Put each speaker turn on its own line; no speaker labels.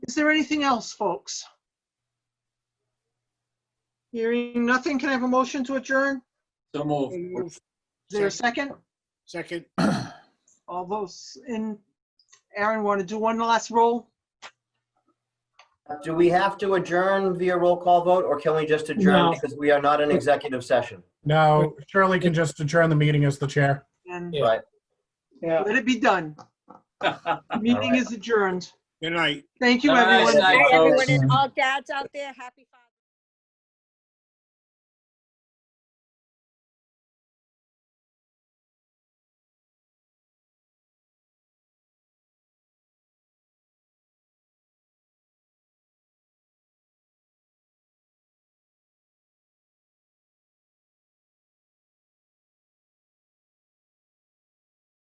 Is there anything else, folks? Hearing nothing, can I have a motion to adjourn?
So move.
Is there a second?
Second,
All those in, Aaron, want to do one last roll?
Do we have to adjourn via roll call vote, or can we just
No.
adjourn because we are not in executive session?
No, Shirley can just adjourn the meeting as the chair.
And
Yeah.
Right.
Yeah.
let it be done. Meeting
Alright.
is adjourned.
good night.
Thank you,
All right,
everyone.
Bye,
Hi,
folks.
everyone and all dads out there, happy Father's